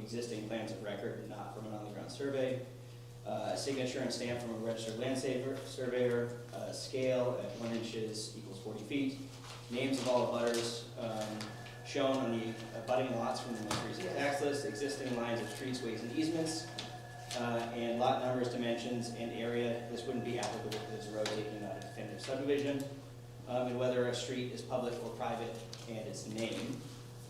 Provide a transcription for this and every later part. existing plans of record, not from an on-the-ground survey. Uh, a signature and stamp from a registered land saver, surveyor, uh, scale at one inches equals forty feet. Names of all abutters, um, shown on the abutting lots from the most recent tax list, existing lines of streets, ways, and easements. Uh, and lot numbers, dimensions, and area, this wouldn't be applicable to this road taking out a definitive subdivision. Um, and whether a street is public or private, and its name.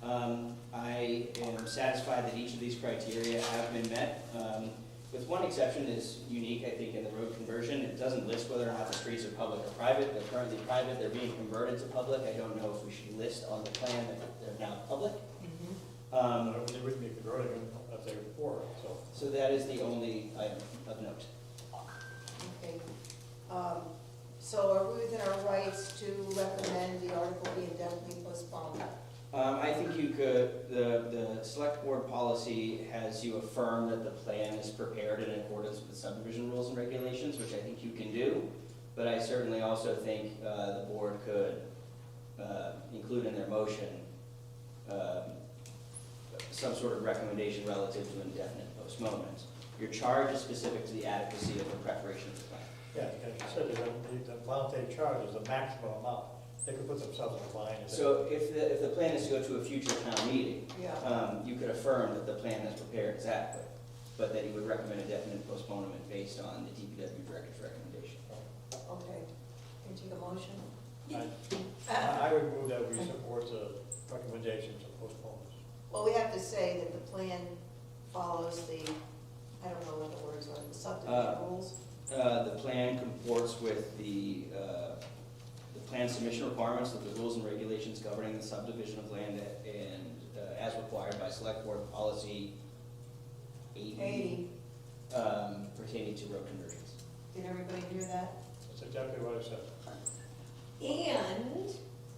Um, I am satisfied that each of these criteria have been met. Um, with one exception is unique, I think, in the road conversion. It doesn't list whether or not the streets are public or private. They're currently private, they're being converted to public. I don't know if we should list on the plan that they're now public. Mm-hmm, I Um, don't think we can make the road again, I've said it before, so. so that is the only item of note. Okay. Um, So are we within our rights to recommend the article be indefinitely postponed? Um, I think you could, the, the select board policy has you affirm that the plan is prepared in accordance with subdivision rules and regulations, which I think you can do. But I certainly also think, uh, the board could, uh, include in their motion, um, some sort of recommendation relative to indefinite postponement. Your charge is specific to the adequacy of the preparation of the plan. Yeah, as you said, the, the amount they charge is the maximum amount, they could put themselves in a line. if they- So if the, if the plan is to go to a future town meeting, Yeah. um, you could affirm that the plan that's prepared is adequate, but that you would recommend a definite postponement based on the DPW director's recommendation. Okay. Can you take a motion? I- I I would move that we support the recommendations to postpone Well, we have to say that the plan follows the, I don't know what the words are, the Uh, subdivision rules? Uh, the plan comports with the, uh, the plan submission requirements of the rules and regulations governing the subdivision of land and, uh, as required by select board policy eighty, Eighty, um, pertaining to road conversions. did everybody hear that? this. That's exactly what I said. And you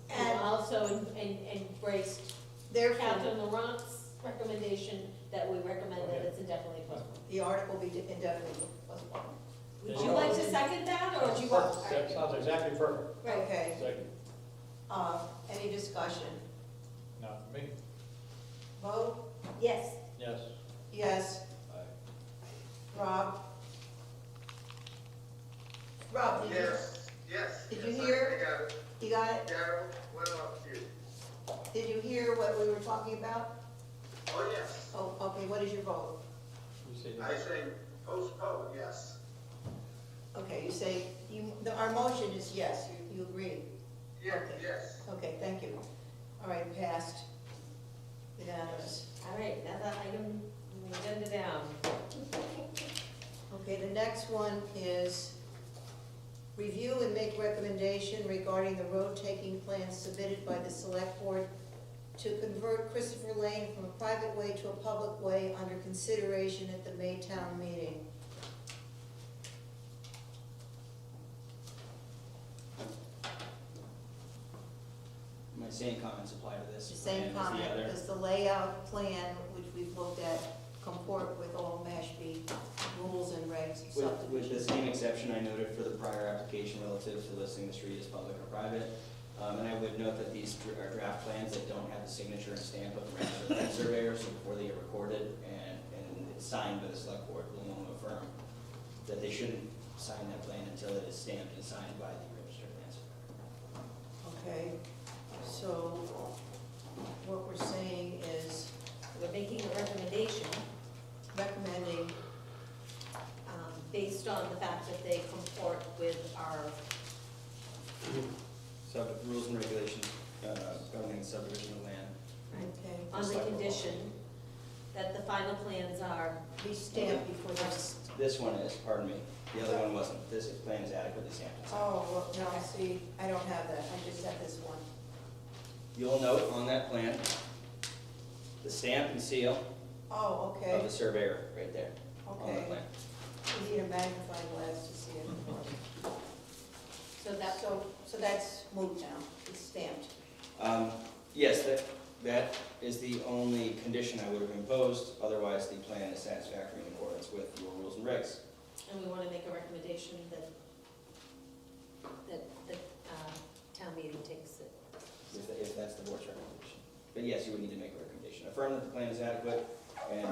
And- also en- en- embraced Therefore, Captain Laurent's recommendation that we recommend that it's indefinitely postponed. the article be indefinitely postponed. Would you like to second that, or would you want? That sounds exactly perfect. Right, Okay. Second, Uh, Any discussion? not for me, Vote, yes, yes. yes. Rob? Rob, did you- Yes, yes. Did you yes, I- hear? you got it? I got it. Daryl, what about you? Did you hear what we were talking about? Oh, yes. Oh, okay, what is your vote? You say I yes. say postpone, yes. Okay, you say, you, the- our motion is yes, you, you agree. Yeah, Okay. yes. Okay, thank you. All right, passed. Unanimous. all right, now that item, we agenda down. Okay, the next one is review and make recommendation regarding the road taking plan submitted by the select board to convert Christopher Lane from a private way to a public way under consideration at the Maytown meeting. My same comments apply to this. The plan same as the comment, other. does the layout plan, which we've looked at, comport with all Mashpee rules and regs With, and with the subdivisions? same exception I noted for the prior application relative to listing the street as public or private. Um, and I would note that these dr- are draft plans that don't have the signature and stamp of the registered land surveyor, so before they are recorded and, and it's signed by the select board, we will affirm that they shouldn't sign that plan until it is stamped and signed by the registered land surveyor. Okay, so what we're saying is We're making a recommendation recommending, um, based on the fact that they comport with our, So the rules and regulations, uh, governing subdivision of land. okay, on the condition that the final plans are, be stamped before this. This one is, pardon me, the other one wasn't. This plan is adequately stamped and signed. Oh, well, no, see, I don't have that, I just have this one. You'll note on that plan, the stamp and seal Oh, okay, of the surveyor, right there, on the okay. plan. You need a magnifying glass to see it. so that, So, so that's moved now, it's stamped. Um, Yes, that, that is the only condition I would have imposed, otherwise the plan is satisfactory in accordance with your rules and regs. and we wanna make a recommendation that, that, that, uh, town meeting takes it. If, if that's the board's recommendation. But yes, you would need to make a recommendation. Affirm that the plan is adequate and